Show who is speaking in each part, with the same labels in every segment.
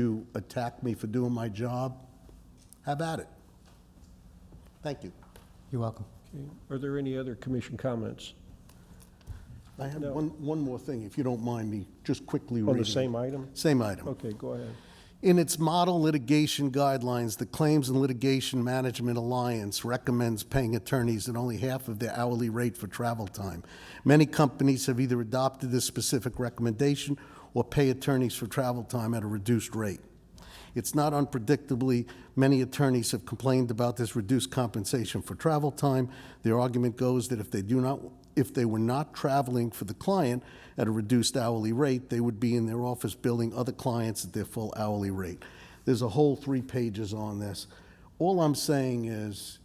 Speaker 1: you attack me for doing my job, have at it. Thank you.
Speaker 2: You're welcome.
Speaker 3: Okay. Are there any other commission comments
Speaker 1: I have
Speaker 3: No.
Speaker 1: one, one more thing, if you don't mind me just quickly reading.
Speaker 3: on the same item?
Speaker 1: Same item.
Speaker 3: Okay, go ahead.
Speaker 1: In its model litigation guidelines, the Claims and Litigation Management Alliance recommends paying attorneys at only half of their hourly rate for travel time. Many companies have either adopted this specific recommendation or pay attorneys for travel time at a reduced rate. It's not unpredictably, many attorneys have complained about this reduced compensation for travel time. Their argument goes that if they do not, if they were not traveling for the client at a reduced hourly rate, they would be in their office billing other clients at their full hourly rate. There's a whole three pages on this. All I'm saying is,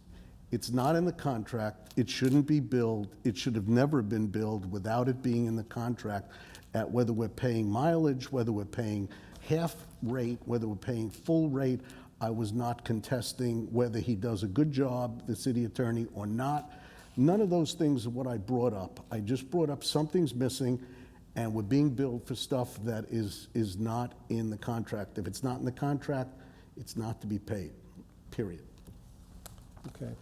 Speaker 1: it's not in the contract, it shouldn't be billed, it should have never been billed without it being in the contract at whether we're paying mileage, whether we're paying half rate, whether we're paying full rate. I was not contesting whether he does a good job, the city attorney, or not. None of those things are what I brought up. I just brought up something's missing, and we're being billed for stuff that is, is not in the contract. If it's not in the contract, it's not to be paid, period.
Speaker 3: Okay.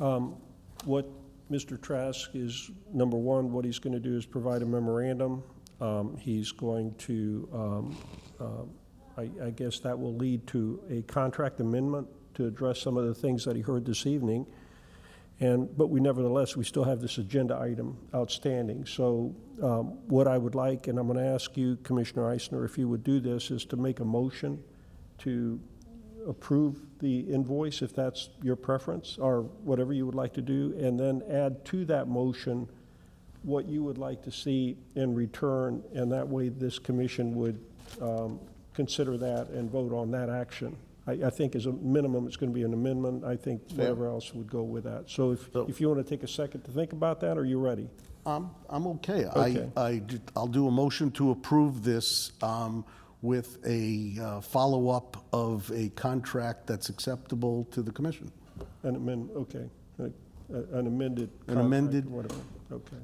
Speaker 3: Um, What Mr. Trask is, number one, what he's going to do is provide a memorandum. Um, He's going to, um, um, I I guess that will lead to a contract amendment to address some of the things that he heard this evening. And, but we nevertheless, we still have this agenda item outstanding. So um, what I would like, and I'm going to ask you, Commissioner Eisner, if you would do this, is to make a motion to approve the invoice, if that's your preference, or whatever you would like to do, and then add to that motion what you would like to see in return, and that way this commission would um, consider that and vote on that action. I, I think as a minimum, it's going to be an amendment. I think whatever else would go with that. So if,
Speaker 1: So-
Speaker 3: if you want to take a second to think about that, are you ready?
Speaker 1: I'm, I'm okay. I,
Speaker 3: Okay.
Speaker 1: I, will do a motion to approve this um, with a uh, follow-up of a contract that's acceptable to the commission.
Speaker 3: An amend, okay, A- a- an amended
Speaker 1: An
Speaker 3: contract,
Speaker 1: amended-
Speaker 3: Whatever, okay.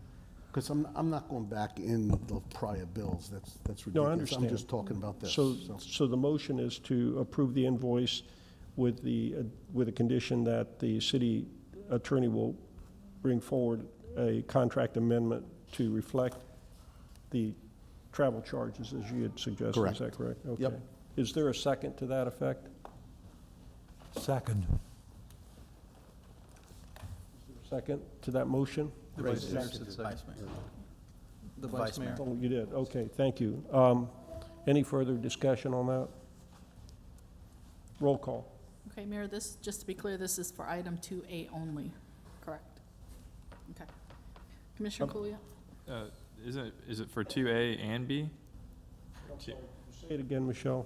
Speaker 1: Because I'm, I'm not going back in the prior bills. That's, that's ridiculous.
Speaker 3: No, I
Speaker 1: I'm
Speaker 3: understand.
Speaker 1: just talking about this.
Speaker 3: So, so the motion is to approve the invoice with the, uh, with the condition that the city attorney will bring forward a contract amendment to reflect the travel charges as you had suggested, is
Speaker 1: Correct.
Speaker 3: that correct? Okay.
Speaker 1: Yep.
Speaker 3: Is there a second to that effect?
Speaker 4: Second.
Speaker 3: Second to that motion?
Speaker 5: The vice mayor should say. The vice mayor.
Speaker 3: Oh, you did, okay, thank you. Um, Any further discussion on that? Roll call.
Speaker 6: Okay, Mayor, this, just to be clear, this is for item 2A only, correct? Okay. Commissioner Kulia?
Speaker 7: Uh, Is it, is it for 2A and B? Two-
Speaker 3: Say it again, Michelle.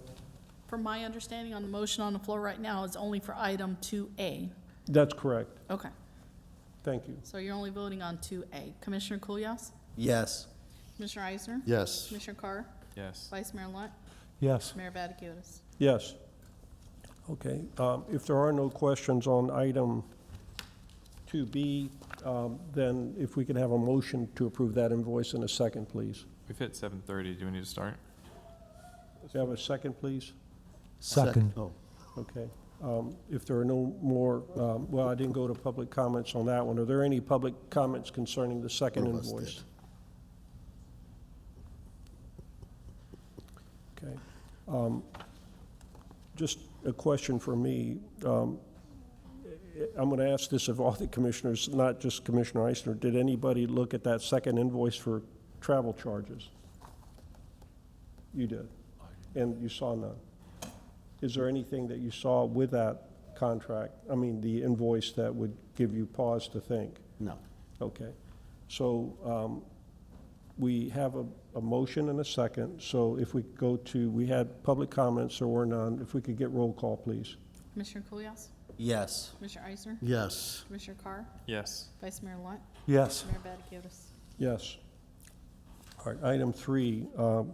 Speaker 6: From my understanding on the motion on the floor right now, it's only for item 2A.
Speaker 3: That's correct,
Speaker 6: Okay,
Speaker 3: thank you.
Speaker 6: so you're only voting on 2A. Commissioner Kulyas?
Speaker 5: Yes.
Speaker 6: Commissioner Eisner?
Speaker 1: Yes.
Speaker 6: Commissioner Carr?
Speaker 7: Yes.
Speaker 6: Vice Mayor Lunt?
Speaker 4: Yes.
Speaker 6: Mayor Vaticius?
Speaker 3: Yes. Okay, um, if there are no questions on item 2B, um, then if we could have a motion to approve that invoice in a second, please.
Speaker 7: We've hit 7:30. Do we need to start?
Speaker 3: Do you have a second, please?
Speaker 4: Second.
Speaker 1: Oh,
Speaker 3: Okay. Um, If there are no more, um, well, I didn't go to public comments on that one. Are there any public comments concerning the second
Speaker 1: One of us
Speaker 3: invoice? Okay. Um, Just a question for me. Um, I'm going to ask this of all the commissioners, not just Commissioner Eisner. Did anybody look at that second invoice for travel charges? You did, and you saw none. Is there anything that you saw with that contract, I mean, the invoice that would give you pause to think?
Speaker 1: no.
Speaker 3: Okay. So um, we have a, a motion and a second, so if we go to, we had public comments, there were none. If we could get roll call, please.
Speaker 6: Commissioner Kulyas?
Speaker 5: Yes.
Speaker 6: Commissioner Eisner?
Speaker 1: Yes.
Speaker 6: Commissioner Carr?
Speaker 7: Yes.
Speaker 6: Vice Mayor Lunt?
Speaker 4: Yes.
Speaker 6: Mayor Vaticius?
Speaker 3: Yes. All right, item three, um,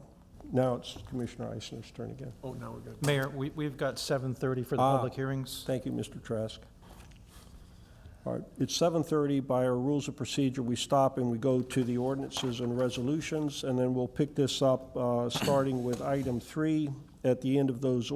Speaker 3: now it's Commissioner Eisner's turn again. Oh, now we're good.
Speaker 5: Mayor, we, we've got 7:30 for the
Speaker 3: Ah.
Speaker 5: public hearings.
Speaker 3: Thank you, Mr. Trask. All right, it's 7:30. By our rules of procedure, we stop and we go to the ordinances and resolutions, and then we'll pick this up, uh, starting with item three, at the end of those